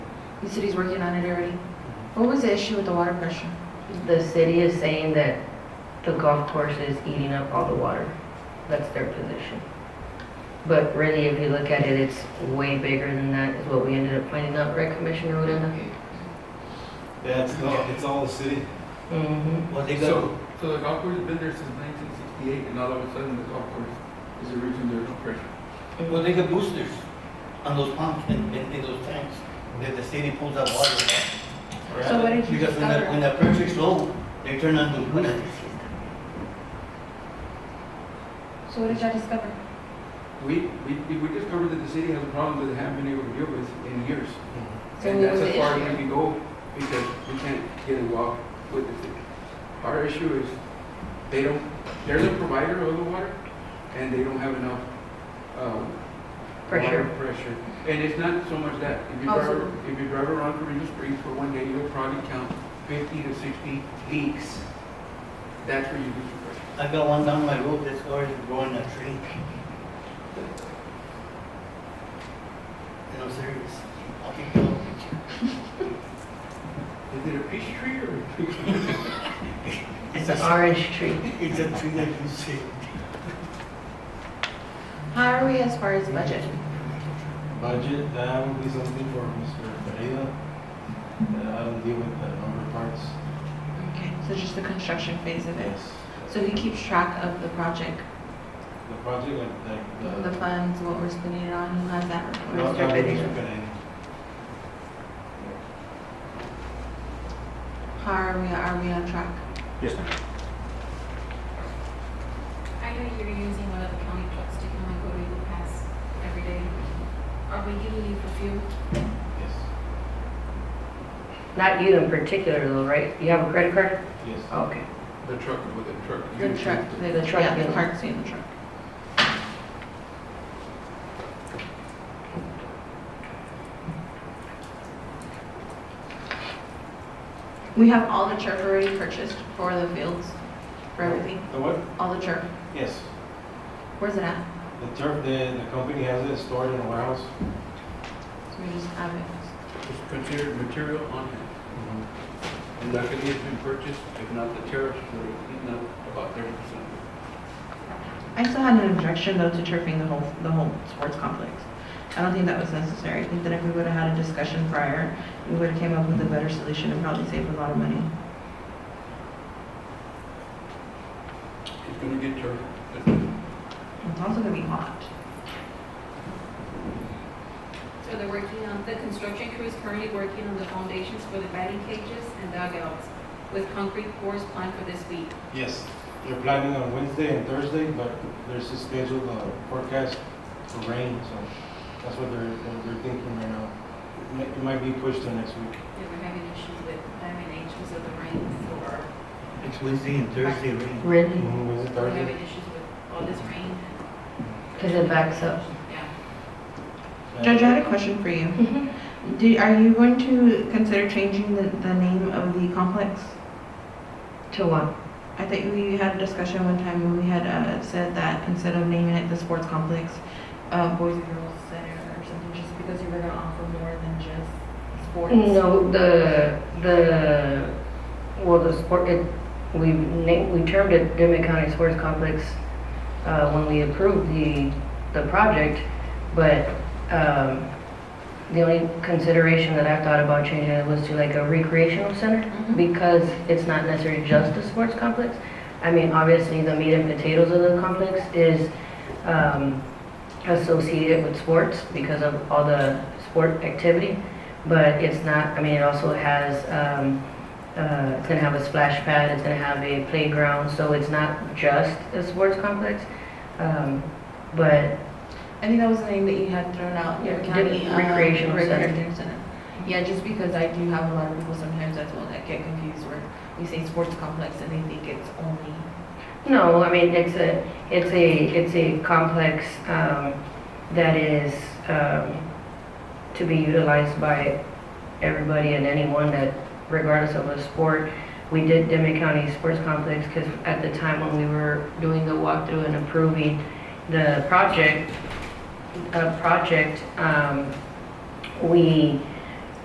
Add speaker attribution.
Speaker 1: The city's working on it already. What was the issue with the water pressure?
Speaker 2: The city is saying that the golf course is eating up all the water. That's their position. But really, if you look at it, it's way bigger than that, is what we ended up finding out, right, Commissioner Odena?
Speaker 3: Yeah, it's all, it's all the city.
Speaker 2: Mm-hmm.
Speaker 4: Well, they go,
Speaker 5: So, so the golf course has been there since 1968, and all of a sudden the golf course is the reason there's no pressure.
Speaker 4: well, they get boosters on those pumps and, and in those tanks, that the city pulls out water.
Speaker 1: So what did you
Speaker 4: Because
Speaker 1: discover?
Speaker 4: when that, when that pressure's low, they turn on the boosters.
Speaker 1: So what did y'all discover?
Speaker 5: We, we, we discovered that the city has a problem that they haven't been able to deal with in years.
Speaker 4: Mm-hmm.
Speaker 1: So
Speaker 5: And
Speaker 1: what
Speaker 5: that's
Speaker 1: was
Speaker 5: as
Speaker 1: the
Speaker 5: far as we
Speaker 1: issue?
Speaker 5: can go, because we can't get involved with the city. Our issue is, they don't, they're the provider of the water, and they don't have enough, um,
Speaker 2: Pressure.
Speaker 5: water Pressure. And it's not so much that, if you
Speaker 1: Oh,
Speaker 5: drive,
Speaker 1: Also-
Speaker 5: if you drive around Carino Springs for one day, you'll probably count fifty to sixty leaks. That's where you lose your pressure.
Speaker 4: I got one down my road that's already growing a tree. And I'm serious. I'll keep you up.
Speaker 5: Is it a peach tree or? a tree?
Speaker 2: It's an orange tree.
Speaker 4: It's a tree that you see.
Speaker 1: How are we as far as budget?
Speaker 3: Budget, that would be something for Mr. Pereira. Uh, I don't deal with the number parts.
Speaker 1: Okay, so just the construction phase of it.
Speaker 3: Yes.
Speaker 1: So he keeps track of the project,
Speaker 3: The project, like, like the.
Speaker 1: the funds, what we're spending it on, who has that report?
Speaker 3: No,
Speaker 2: Mr.
Speaker 3: no,
Speaker 2: Pereira.
Speaker 1: How are we, are we on track?
Speaker 6: Yes, ma'am.
Speaker 7: I know you're using one of the county trucks to come and go to Eagle Pass every day. Are we giving you for fuel?
Speaker 3: Yes,
Speaker 2: Not you in particular though, right? You have a credit card?
Speaker 3: yes.
Speaker 2: Okay.
Speaker 5: The truck, with the truck.
Speaker 1: The truck, the
Speaker 2: The truck,
Speaker 1: truck, yeah, the
Speaker 2: yeah.
Speaker 1: cart's in the truck. We have all the turf already purchased for the fields, for everything,
Speaker 3: The what?
Speaker 1: all the turf.
Speaker 3: Yes.
Speaker 1: Where's it at?
Speaker 3: The turf, the, the company has it stored in a warehouse.
Speaker 1: So we just have it.
Speaker 5: It's considered material on hand.
Speaker 3: Mm-hmm.
Speaker 5: And luckily it's been purchased, if not the tariffs, would have eaten up about thirty percent.
Speaker 1: I still had an objection though to turfing the whole, the whole sports complex. I don't think that was necessary. I think that if we would have had a discussion prior, we would have came up with a better solution and probably saved a lot of money.
Speaker 5: It's gonna get tariffed.
Speaker 1: It's also gonna be hot.
Speaker 7: So they're working on, the construction crew is currently working on the foundations for the batting cages and dugouts with concrete pours planned for this week.
Speaker 3: Yes. They're planning on Wednesday and Thursday, but there's a scheduled uh, forecast for rain, so that's what they're, what they're thinking right now. It might- It might be pushed to next week.
Speaker 7: They were having issues with laminations of the rain for,
Speaker 4: It's Wednesday and Thursday rain.
Speaker 2: Really?
Speaker 3: Mhm, Wednesday,
Speaker 7: we're
Speaker 3: Thursday.
Speaker 7: having issues with all this rain.
Speaker 2: Because it backs up.
Speaker 7: Yeah.
Speaker 1: Judge, I had a question for you.
Speaker 2: Mm-hmm.
Speaker 1: Do, are you going to consider changing the, the name of the complex?
Speaker 2: To one.
Speaker 1: I think we had a discussion one time when we had, uh, said that instead of naming it the sports complex, uh, Boys and Girls Center or something, just because you were gonna offer more than just sports.
Speaker 2: No, the, the, well, the sport, it, we named, we termed it Demet County Sports Complex, uh, when we approved the, the project, but, um, the only consideration that I thought about changing it was to like a recreational center,
Speaker 1: Mhm.
Speaker 2: because it's not necessarily just a sports complex. I mean, obviously, the meat and potatoes of the complex is, um, associated with sports because of all the sport activity, but it's not, I mean, it also has, um, uh, it's gonna have a splash pad, it's gonna have a playground, so it's not just a sports complex. Um, but
Speaker 1: I think that was the name that you had thrown out, your
Speaker 2: Yeah,
Speaker 1: county.
Speaker 2: the
Speaker 1: um,
Speaker 2: recreational center.
Speaker 1: recreation center. Yeah, just because I do have a lot of people sometimes that's one that get confused where we say sports complex and they think it's only
Speaker 2: No, I mean, it's a, it's a, it's a complex um, that is um, to be utilized by everybody and anyone that, regardless of a sport. We did Demet County Sports Complex because at the time when we were doing the walkthrough and approving the project, a project, um, we